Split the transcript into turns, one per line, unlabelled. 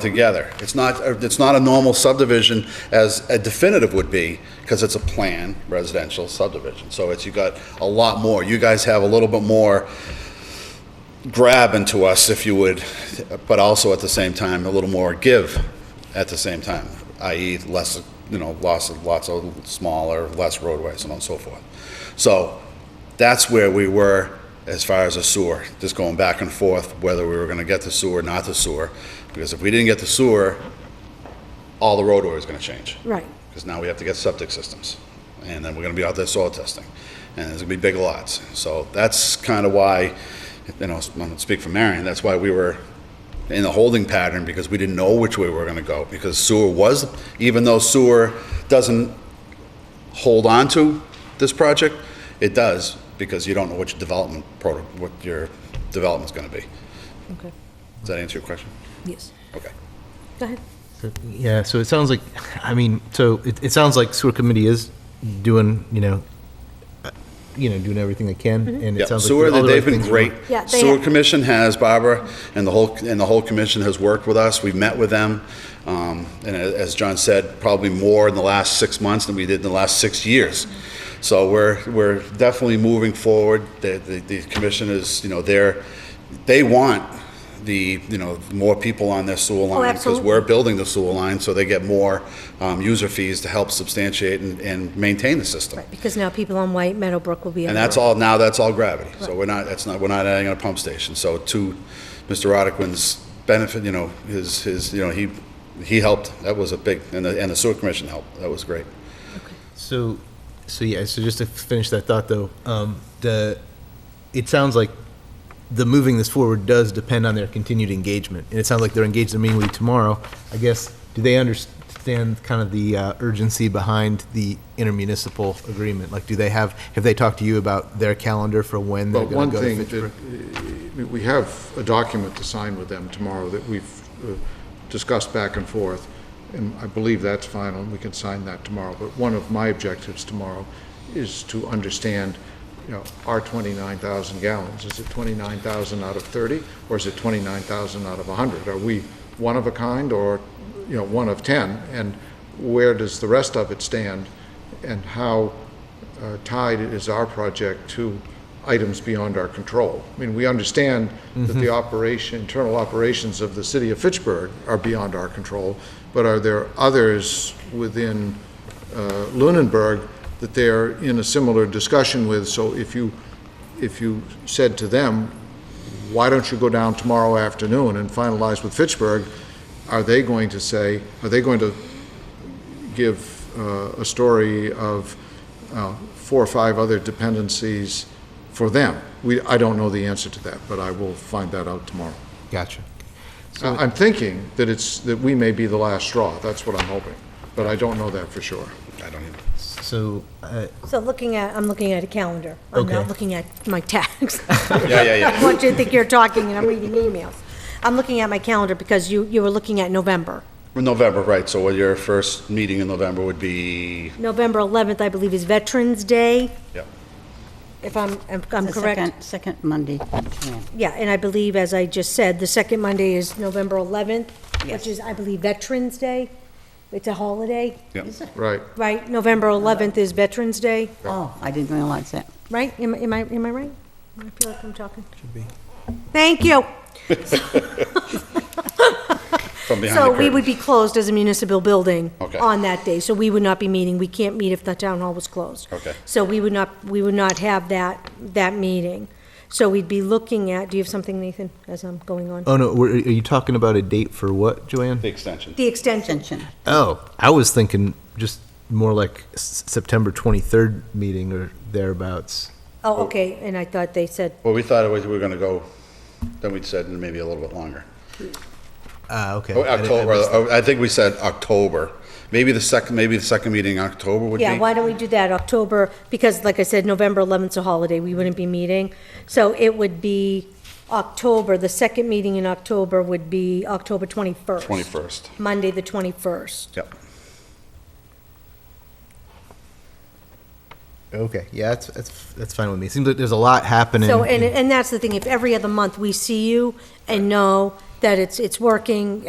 altogether. It's not, it's not a normal subdivision as a definitive would be, because it's a plan residential subdivision. So it's, you got a lot more. You guys have a little bit more grab into us, if you would, but also at the same time, a little more give at the same time, i.e. less, you know, lots of, lots of smaller, less roadways and on and so forth. So that's where we were as far as the sewer, just going back and forth, whether we were gonna get the sewer, not the sewer. Because if we didn't get the sewer, all the roadway was gonna change.
Right.
Because now we have to get septic systems, and then we're gonna be out there soil testing, and there's gonna be big lots. So that's kind of why, you know, I'm gonna speak for Marion, that's why we were in the holding pattern, because we didn't know which way we were gonna go, because sewer was, even though sewer doesn't hold on to this project, it does, because you don't know which development, proto- what your development's gonna be.
Okay.
Does that answer your question?
Yes.
Okay.
Go ahead.
Yeah, so it sounds like, I mean, so it, it sounds like sewer committee is doing, you know, uh, you know, doing everything they can, and it
Yeah,
sounds like.
sewer,
all the
they've
right
been
things are-
great.
Yeah, they
Sewer
have-
Commission has, Barbara, and the whole, and the whole commission has worked with us. We've met with them. um, And a- as John said, probably more in the last six months than we did in the last six years. So we're, we're definitely moving forward. The, the- the commission is, you know, they're, they want the, you know, more people on their sewer line. Because
Oh, absolutely.
we're building the sewer line, so they get more um, user fees to help substantiate and, and maintain the system.
Because now people on White Meadowbrook will be.
And that's all, now that's all gravity. So we're not, that's not, we're not adding a pump station. So to Mr. Roddickman's benefit, you know, his, his, you know, he, he helped. That was a big, and the, and the sewer commission helped. That was great.
So, so yeah, so just to finish that thought though, um, the, it sounds like the moving this forward does depend on their continued engagement, and it sounds like they're engaged in a meeting with you tomorrow. I guess, do they understand kind of the uh, urgency behind the intermunicipal agreement? Like, do they have, have they talked to you about their calendar for when they're gonna
Well, one
go to
thing,
Fitchburg?
that, uh, we have a document to sign with them tomorrow that we've uh, discussed back and forth, and I believe that's final, and we can sign that tomorrow. But one of my objectives tomorrow is to understand, you know, our 29,000 gallons, is it 29,000 out of 30, or is it 29,000 out of 100? Are we one of a kind, or, you know, one of 10? And where does the rest of it stand? And how uh, tied is our project to items beyond our control. I mean, we understand that the operation, internal operations of the city of Fitchburg are beyond our control, but are there others within uh, Lunenburg that they're in a similar discussion with? So if you, if you said to them, why don't you go down tomorrow afternoon and finalize with Fitchburg, are they going to say, are they going to give uh, a story of uh, four or five other dependencies for them. We, I don't know the answer to that, but I will find that out tomorrow.
Gotcha.
I- I'm thinking that it's, that we may be the last straw, that's what I'm hoping, but I don't know that for sure.
I don't even.
So, uh,
So looking at, I'm looking at a calendar. I'm not
Okay.
looking at my tags.
Yeah, yeah, yeah.
What do you think you're talking and I'm reading emails? I'm looking at my calendar because you, you were looking at November.
November, right. So what your first meeting in November would be,
November 11th, I believe, is Veterans Day,
yeah.
if I'm, if I'm
The
correct.
second- Second Monday. Yeah.
Yeah, and I believe, as I just said, the second Monday is November 11th, which
Yes.
is, I believe, Veterans Day. It's a holiday,
yeah.
Right,
right? November 11th is Veterans Day.
Oh, I didn't realize that.
right? Am I, am I, am I right? I feel like I'm talking. Should be. Thank you.
From behind the
So we
curtain.
would be closed as a municipal building
Okay.
on that day, so we would not be meeting. We can't meet if the town hall was closed.
Okay.
So we would not, we would not have that, that meeting. So we'd be looking at, do you have something, Nathan, as I'm going on?
oh no, were- are you talking about a date for what, Joanne?
The extension.
The extension,
Extension.
Oh, I was thinking just more like S- September 23rd meeting or thereabouts.
oh, okay, and I thought they said,
Well, we thought it was, we were gonna go, then we said maybe a little bit longer.
Ah, okay.
Oh,
I didn't- I
October,
missed
oh, I think we said October. Maybe the second, maybe the second meeting in October would be.
yeah, why don't we do that, October, because like I said, November 11th is a holiday, we wouldn't be meeting. So it would be October, the second meeting in October would be October 21st.
21st.
Monday, the 21st.
Yep.
that. Okay, yeah, that's, that's, that's fine with me. Seems like there's a lot happening.
So, and,
in-
and that's the thing, if every other month we see you and know that it's, it's working,